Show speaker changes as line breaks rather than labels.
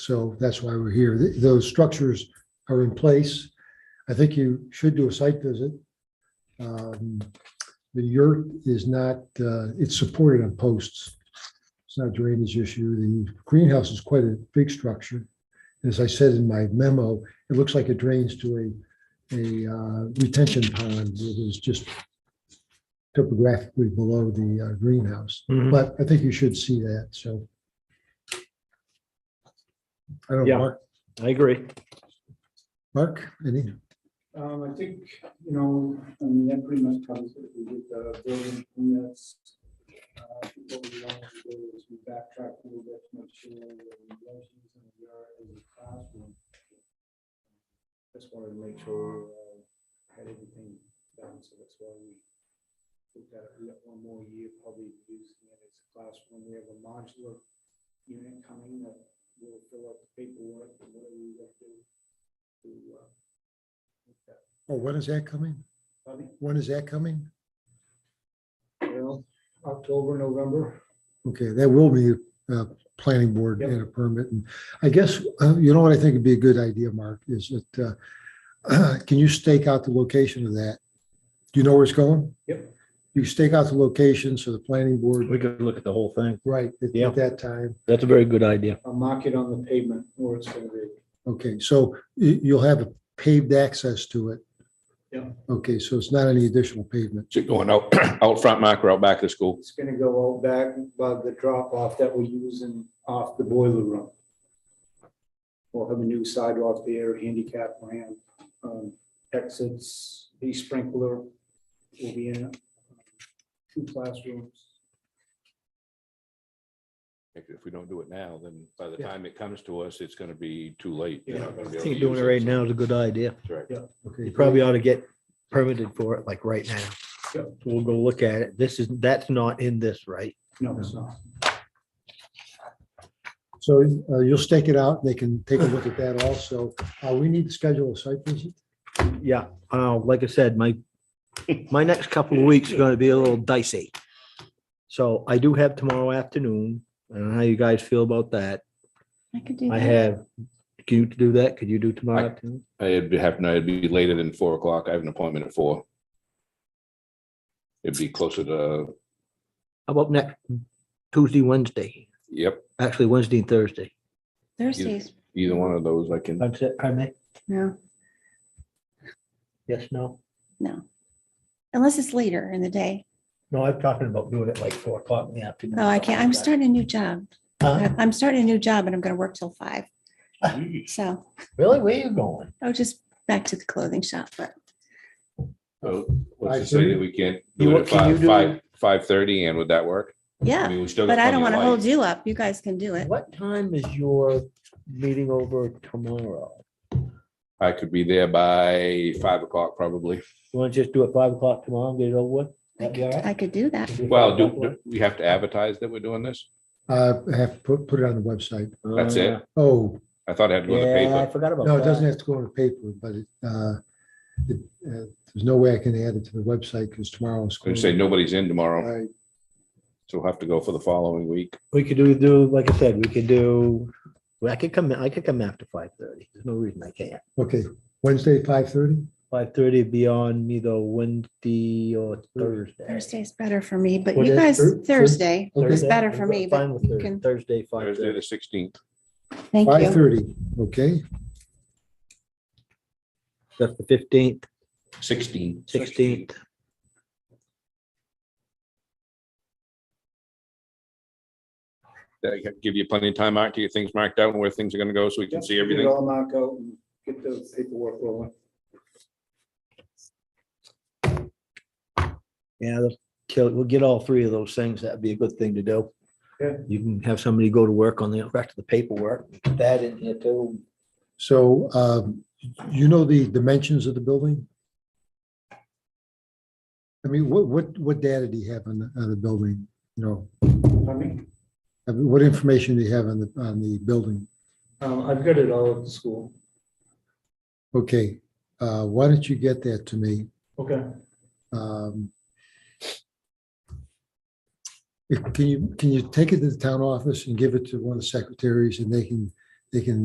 So that's why we're here. Th- Those structures are in place. I think you should do a site visit. Um, The yurt is not, uh, it's supported on posts. It's not a drainage issue. The greenhouse is quite a big structure. As I said in my memo, it looks like it drains to a, a uh, retention pond that is just topographically below the uh, greenhouse.
Mhm.
But I think you should see that, so. I don't,
Yeah.
know, Mark,
I agree.
Mark, any,
Um, I think, you know, I mean, that pretty much covers it. We did the building permits. Uh, What we wanted to do is we backtracked a little bit to make sure that the relations in the yard and the classroom. Just wanted to make sure we had everything done, so that's why we looked at it. We got one more year probably using it as a classroom. We have a modular unit coming that will fill out the paperwork and whatever we have to do to, uh, make that
oh, when is that coming?
Pardon me?
When is that coming?
Well, October, November.
Okay, that will be a planning board
Yep.
and a permit. And I guess, uh, you know what I think would be a good idea, Mark, is that, uh, can you stake out the location of that? Do you know where it's going?
Yep.
You stake out the location so the planning board,
We could look at the whole thing.
right, at-
Yeah.
at that time.
That's a very good idea.
I'll mark it on the pavement where it's gonna be.
Okay, so you, you'll have paved access to it.
Yep.
Okay, so it's not any additional pavement.
Is it going out, out front, Mark, or out back of the school?
It's gonna go out back by the drop off that we're using off the boiler room. We'll have a new sidewalk there, handicap ramp, um, exits, the sprinkler will be in it. Two classrooms.
If we don't do it now, then by the
Yeah.
time it comes to us, it's gonna be too late. They're
Yeah.
not gonna
I
be able
think
to
doing it
use
right now is a good idea.
That's right.
Okay.
You probably ought to get permitted for it like right now.
Yep.
We'll go look at it. This is, that's not in this, right?
No, it's not.
So uh, you'll stake it out. They can take a look at that also. Uh, We need to schedule a site visit.
Yeah. Uh, like I said, my, my next couple of weeks are gonna be a little dicey. So I do have tomorrow afternoon. I don't know how you guys feel about that.
I could do
I
that.
have, can you do that? Could you do tomorrow
I-
afternoon?
It'd be happening, it'd be later than four o'clock. I have an appointment at four. It'd be closer to,
How about next Tuesday, Wednesday?
yep,
Actually, Wednesday and Thursday.
Thursdays,
either one of those I can.
That's it, pardon me?
no,
Yes, no?
no. Unless it's later in the day.
No, I'm talking about doing it like four o'clock in the afternoon.
Oh, I can't, I'm starting a new job.
Huh?
I'm starting a new job and I'm gonna work till five. So,
Really? Where you going?
oh, just back to the clothing shop, but
So, What's to say that we can't
You-
do it at
can you
five,
do-
five, five thirty, and would that work? I
yeah,
mean, we still got
but I don't
plenty
want
of
to hold
light.
you up. You guys can do it.
What time is your meeting over tomorrow?
I could be there by five o'clock probably.
You want to just do it five o'clock tomorrow and get it over with?
I
That'd be all
could-
right?
I could do that.
Do five
Well, do,
o'clock
do we have to advertise that we're doing this?
Uh, I Have to put, put it on the website.
one?
That's
Uh,
it?
Oh,
I thought I had to go to the
Yeah, I
paper.
forgot about that.
No, it doesn't have to go on the paper, but it, uh, it, uh, there's no way I can add it to the website because tomorrow is.
They say nobody's in tomorrow.
Right,
So we'll have to go for the following week.
We could do, do, like I said, we could do, well, I could come, I could come after five thirty. There's no reason I can't.
okay, Wednesday, five thirty?
Five thirty beyond either Wednesday or Thursday.
Thursday's better for me, but
What
you
is
guys,
Thur- Thur-
Thursday is
Thursday?
better
I'm
for me,
fine
but
with
you
Thurs-
can,
Thursday, five
Thursday,
thirty.
the sixteenth.
thank
Five
you.
thirty, okay,
That's the fifteenth,
Sixteen.
sixteenth.
That give you plenty of time, Mark, to get things marked out and where things are gonna go, so we can see
Get it
everything.
all marked out and get the paperwork rolling.
Yeah, let's kill, we'll get all three of those things. That'd be a good thing to do.
Yeah.
You can have somebody go to work on the rest of the paperwork, put that in here too.
so, um, you know the dimensions of the building? I mean, what, what, what data do you have on, the- on the building, you know,
Pardon me?
I mean, what information do you have on the, on the building?
Um, I've got it all at the school.
Okay, uh, why don't you get that to me?
Okay.
Um if- Can you, can you take it to the town office and give it to one of the secretaries and they can they can